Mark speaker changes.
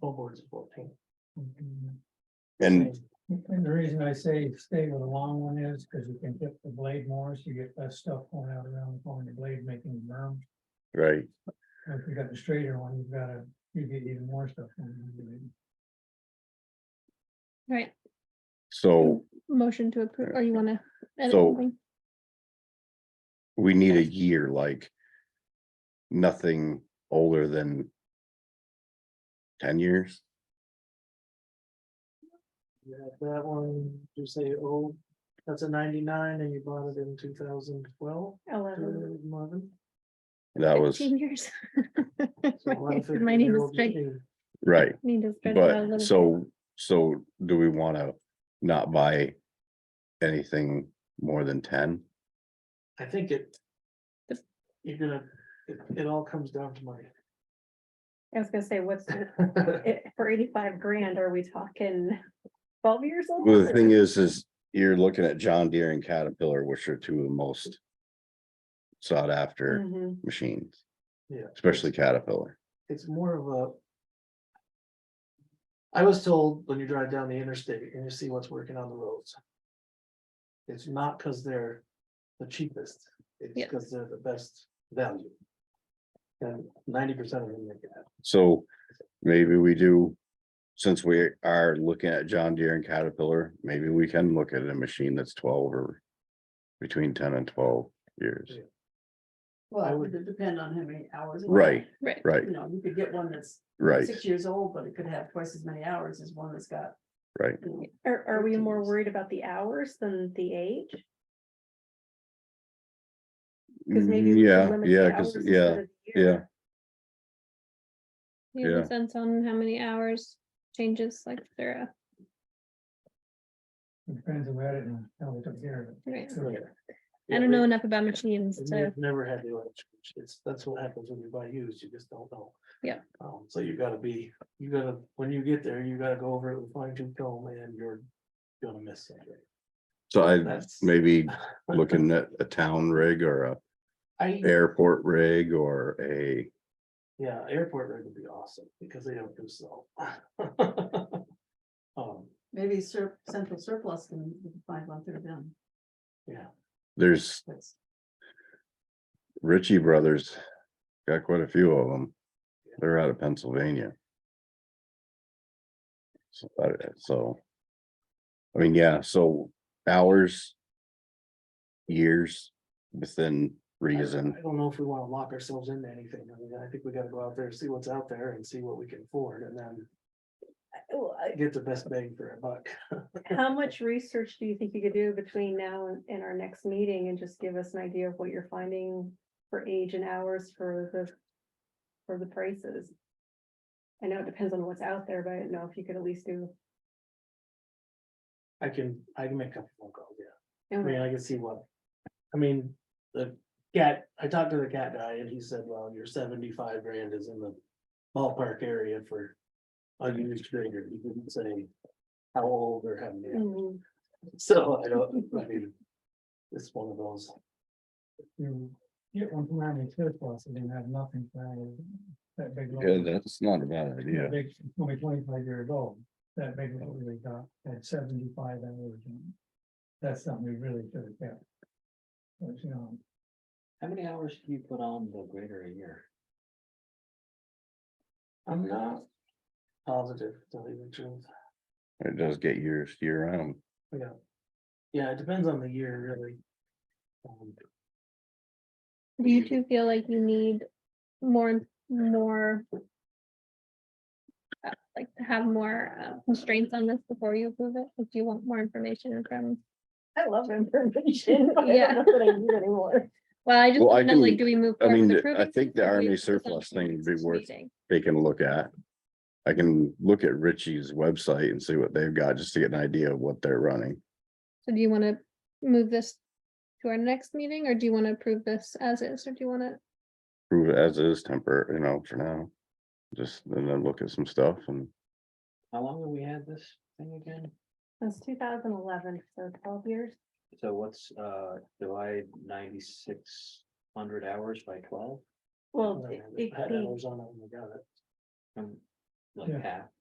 Speaker 1: full board's fourteen.
Speaker 2: And
Speaker 3: Mm-hmm. And the reason I say stay with the long one is because you can get the blade more, so you get less stuff going out around the corner, the blade making the berm.
Speaker 2: right,
Speaker 3: If you got the straighter one, you've got a, you get even more stuff. going on the blade.
Speaker 4: Right,
Speaker 2: so
Speaker 4: motion to approve, or you wanna? edit
Speaker 2: So-
Speaker 4: something?
Speaker 2: we need a year like. Nothing older than. Ten years,
Speaker 1: You had that one, you say, oh, that's a ninety-nine and you bought it in two thousand twelve, uh,
Speaker 4: Eleven.
Speaker 3: Uh-huh.
Speaker 1: eleven.
Speaker 2: that was,
Speaker 4: 15 years.
Speaker 1: So a lot of
Speaker 4: My name is
Speaker 1: 15-year-old
Speaker 4: Drake.
Speaker 1: machine.
Speaker 2: right,
Speaker 4: Need to stretch it out a little
Speaker 2: but so, so do we wanna not buy? Anything more than ten?
Speaker 1: I think it.
Speaker 4: The-
Speaker 1: You're gonna, it, it all comes down to money.
Speaker 5: I was gonna say, what's, it- for eighty-five grand, are we talking twelve years old?
Speaker 2: Well, the thing is, is you're looking at John Deere and Caterpillar, which are two of the most. Sought after
Speaker 5: Mhm.
Speaker 2: machines,
Speaker 1: Yeah.
Speaker 2: especially Caterpillar,
Speaker 1: It's more of a. I was told when you drive down the interstate and you see what's working on the roads. It's not because they're the cheapest, it's
Speaker 4: Yeah.
Speaker 1: because they're the best value. And ninety percent of them make it happen.
Speaker 2: so maybe we do. Since we are looking at John Deere and Caterpillar, maybe we can look at a machine that's twelve or. Between ten and twelve years,
Speaker 1: I
Speaker 6: Well, it
Speaker 1: would-
Speaker 6: would depend on how many hours. it
Speaker 2: Right,
Speaker 6: had.
Speaker 4: Right.
Speaker 2: right,
Speaker 6: You know, you could get one that's
Speaker 2: right,
Speaker 6: six years old, but it could have twice as many hours as one that's got.
Speaker 2: Right.
Speaker 6: you know,
Speaker 5: Are, are we more
Speaker 6: 15 years.
Speaker 5: worried about the hours than the age? 'Cause maybe we should
Speaker 2: Mm, yeah,
Speaker 5: limit the
Speaker 2: yeah, cause,
Speaker 5: hours
Speaker 2: yeah,
Speaker 5: instead of the
Speaker 2: yeah.
Speaker 5: year.
Speaker 4: Do You have
Speaker 2: yeah.
Speaker 4: a sense on how many hours changes like there,
Speaker 3: It Depends on where it and how we took care of it.
Speaker 4: right?
Speaker 1: Right.
Speaker 4: I
Speaker 1: Yeah,
Speaker 4: don't
Speaker 1: we-
Speaker 4: know uh, enough about machines
Speaker 1: And
Speaker 4: to,
Speaker 1: I've never had the electric, it's, that's what happens when you buy used, you just don't know.
Speaker 4: Yeah.
Speaker 1: Um, so you gotta be, you gotta, when you get there, you gotta go over it with fine tooth comb and you're gonna miss something.
Speaker 2: So I
Speaker 1: That's-
Speaker 2: maybe looking at a town rig or a
Speaker 1: I,
Speaker 2: airport rig or a.
Speaker 1: yeah, airport rig would be awesome, because they don't do so. Um,
Speaker 6: Maybe sur- central surplus can we can find one through them.
Speaker 1: yeah,
Speaker 2: There's
Speaker 6: That's,
Speaker 2: Ritchie Brothers, got quite a few of them. They're out of Pennsylvania. So, uh, so. I mean, yeah, so hours. Years
Speaker 1: I
Speaker 2: within
Speaker 1: I
Speaker 2: reason,
Speaker 1: don't know if we wanna lock ourselves into anything, I mean, I think we gotta go out there, see what's out there and see what we can afford, and then
Speaker 5: Oh, I-
Speaker 1: get the best bang for our buck.
Speaker 5: How much research do you think you could do between now and, and our next meeting and just give us an idea of what you're finding for age and hours for the, for the prices? I know it depends on what's out there, but I don't know if you could at least do.
Speaker 1: I can, I can make a couple phone calls, yeah.
Speaker 5: I
Speaker 1: I
Speaker 5: don't know.
Speaker 1: mean, I can see what, I mean, the cat, I talked to the cat guy and he said, well, your seventy-five grand is in the ballpark area for. A used grader, he didn't say how old or how many,
Speaker 5: Mm,
Speaker 1: so I don't, I mean. It's one of those,
Speaker 3: You get one from Army surplus and then have nothing for that big. load.
Speaker 2: yeah, that's not a bad idea,
Speaker 3: Big, only twenty-five years old, that big load we got at seventy-five hours. and That's something we really should have kept. But, you know,
Speaker 7: How many hours do you put on the grader a year?
Speaker 1: I'm not positive, to tell you the truth,
Speaker 2: it does get years year round,
Speaker 1: yeah. Yeah, it depends on the year, really. Um,
Speaker 4: do you two feel like you need more, and more? uh, Like to have more uh, constraints on this before you approve it, if you want more information from,
Speaker 5: I love information. but I
Speaker 4: Yeah.
Speaker 5: don't know that I need it anymore.
Speaker 4: well, I just.
Speaker 2: Well, I
Speaker 4: wanna know, like,
Speaker 2: can-
Speaker 4: Do we move?
Speaker 2: I
Speaker 4: forward with
Speaker 2: mean, I
Speaker 4: approving
Speaker 2: think
Speaker 4: it,
Speaker 2: the
Speaker 4: or do we
Speaker 2: Army
Speaker 4: put something
Speaker 2: surplus
Speaker 4: in
Speaker 2: thing would be
Speaker 4: next
Speaker 2: worth-
Speaker 4: meeting?
Speaker 2: taking a look at. I can look at Ritchie's website and see what they've got, just to get an idea of what they're running.
Speaker 4: So do you want to move this to our next meeting, or do you want to approve this as is, or do you want to?
Speaker 2: prove it as is temper, you know, for now. Just and then look at some stuff and
Speaker 7: How long have we had this thing again?
Speaker 5: Since two thousand eleven, so twelve years.
Speaker 7: So what's, uh, divide ninety-six hundred hours by twelve?
Speaker 1: I
Speaker 5: Well,
Speaker 1: don't
Speaker 5: it-
Speaker 1: have it.
Speaker 5: it-
Speaker 1: I had
Speaker 5: the-
Speaker 1: hours on it when I got it.
Speaker 7: Um,
Speaker 1: like
Speaker 8: Yeah.
Speaker 1: half,